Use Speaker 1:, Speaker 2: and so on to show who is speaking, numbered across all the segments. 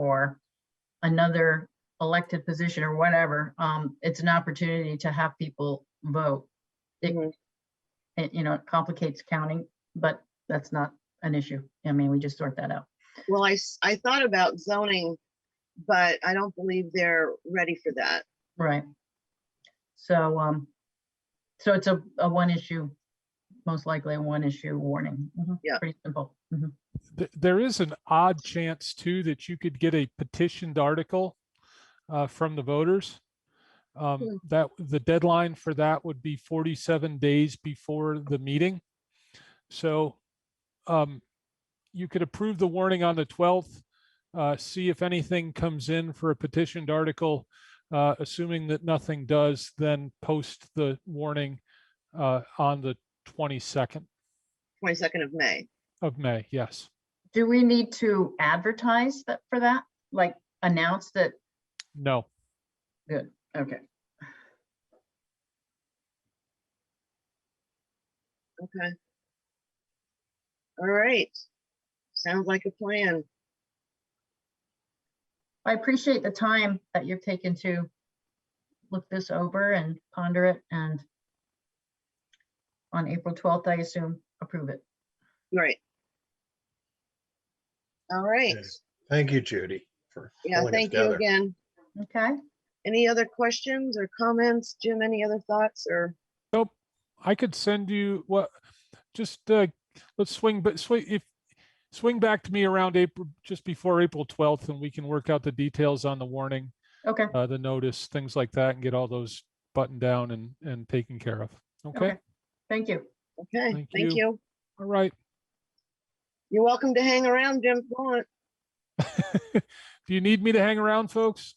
Speaker 1: or another elected position or whatever, um, it's an opportunity to have people vote. It,
Speaker 2: Mhm.
Speaker 1: it, you know, it complicates counting, but that's not an issue. I mean, we just sort that out.
Speaker 2: Well, I, s- I thought about zoning, but I don't believe they're ready for that.
Speaker 1: Right. So, um, so it's a, a one issue, most likely a one issue warning. Mhm,
Speaker 2: Yeah.
Speaker 1: Pretty simple. Mhm.
Speaker 3: th- there is an odd chance too that you could get a petitioned article uh, from the voters.
Speaker 2: Hmm.
Speaker 3: Um, that the deadline for that would be 47 days before the meeting. So um, you could approve the warning on the 12th. Uh, see if anything comes in for a petitioned article. Uh, assuming that nothing does, then post the warning uh, on the 22nd
Speaker 2: Twenty-second of May.
Speaker 3: of May. Yes.
Speaker 1: Do we need to advertise that for that? Like announce that?
Speaker 3: No.
Speaker 1: Okay.
Speaker 2: Okay. All right. Sounds like a plan.
Speaker 1: I appreciate the time that you've taken to look this over and ponder it and on April 12th, I assume, approve it.
Speaker 2: Right. All right.
Speaker 4: Yes. Thank you, Judy, for.
Speaker 2: Yeah,
Speaker 4: pulling us
Speaker 2: thank you
Speaker 4: together.
Speaker 2: again.
Speaker 1: Okay?
Speaker 2: Any other questions or comments? Jim, any other thoughts or?
Speaker 3: Nope, I could send you what, just, uh, let's swing, but swing, if, swing back to me around April, just before April twelfth, and we can work out the details on the warning,
Speaker 1: Okay.
Speaker 3: uh, the notice, things like that, and get all those buttoned down and, and taken care of. Okay,
Speaker 1: Thank you.
Speaker 2: Okay,
Speaker 3: Thank
Speaker 2: thank
Speaker 3: you.
Speaker 2: you.
Speaker 3: all right.
Speaker 2: You're welcome to hang around, Jim, if you want,
Speaker 3: If you need me to hang around, folks,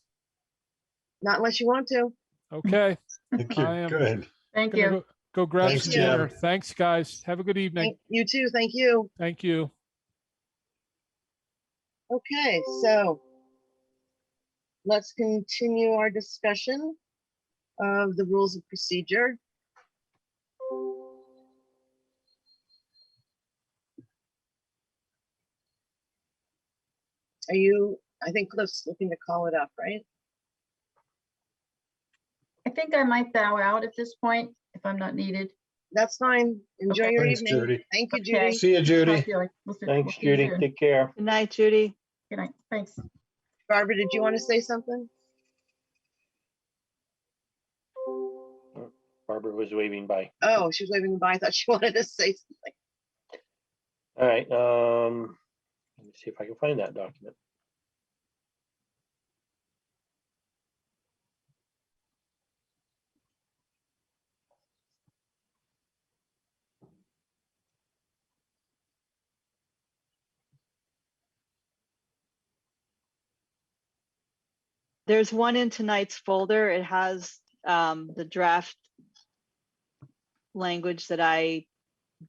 Speaker 2: not unless you want to.
Speaker 3: okay.
Speaker 4: Thank you.
Speaker 3: I am-
Speaker 4: Good.
Speaker 1: Thank
Speaker 3: gonna
Speaker 1: you.
Speaker 3: go- Go grab
Speaker 4: Thanks,
Speaker 3: some
Speaker 2: Jim.
Speaker 3: dinner. Thanks, guys. Have a good evening.
Speaker 2: Thank You too, thank you.
Speaker 3: Thank you.
Speaker 2: Okay, so let's continue our discussion of the rules of procedure. Are you, I think Cliff's looking to call it up, right?
Speaker 1: I think I might bow out at this point if I'm not needed.
Speaker 2: That's fine. Enjoy
Speaker 1: Okay.
Speaker 2: your
Speaker 4: Thanks,
Speaker 2: evening.
Speaker 4: Judy.
Speaker 2: Thank you,
Speaker 1: Okay.
Speaker 2: Judy.
Speaker 4: See you,
Speaker 1: I
Speaker 4: Judy.
Speaker 1: feel like we'll see- we'll
Speaker 5: Thanks,
Speaker 1: see you
Speaker 5: Judy.
Speaker 1: soon.
Speaker 5: Take care.
Speaker 6: Good night, Judy.
Speaker 1: Good night. Thanks.
Speaker 2: Barbara, did you want to say something?
Speaker 5: Barbara was waving by.
Speaker 2: Oh, she was waving by. I thought she wanted to say something.
Speaker 5: All right, um, let me see if I can find that document.
Speaker 6: There's one in tonight's folder. It has um, the draft language that I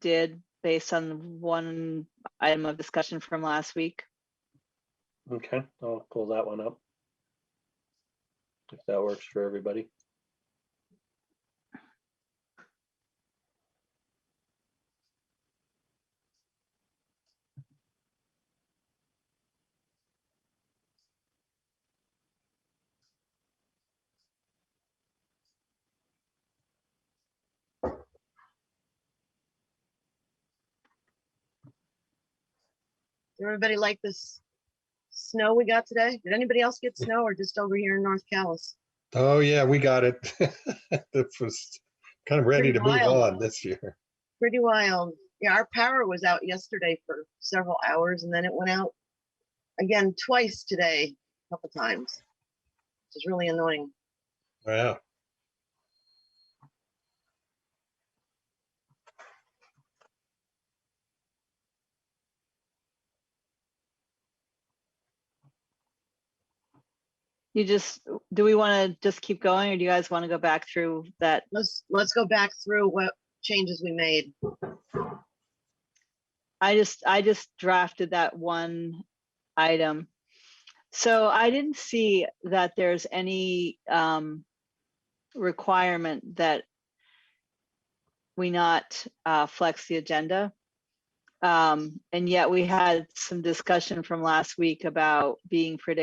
Speaker 6: did based on one item of discussion from last week.
Speaker 5: Okay, I'll pull that one up. If that works for everybody.
Speaker 2: Does everybody like this snow we got today? Did anybody else get snow or just over here in North Callis?
Speaker 4: Oh, yeah, we got it. This was kind of ready
Speaker 2: Pretty
Speaker 4: to move
Speaker 2: wild.
Speaker 4: on this year.
Speaker 2: Pretty wild. Yeah, our power was out yesterday for several hours and then it went out again twice today, a couple times. Which is really annoying.
Speaker 4: Wow.
Speaker 6: You just, do we want to just keep going or do you guys want to go back through that?
Speaker 2: Let's, let's go back through what changes we made.
Speaker 6: I just, I just drafted that one item. So I didn't see that there's any um, requirement that we not uh, flex the agenda. Um, And yet we had some discussion from last week about being predictable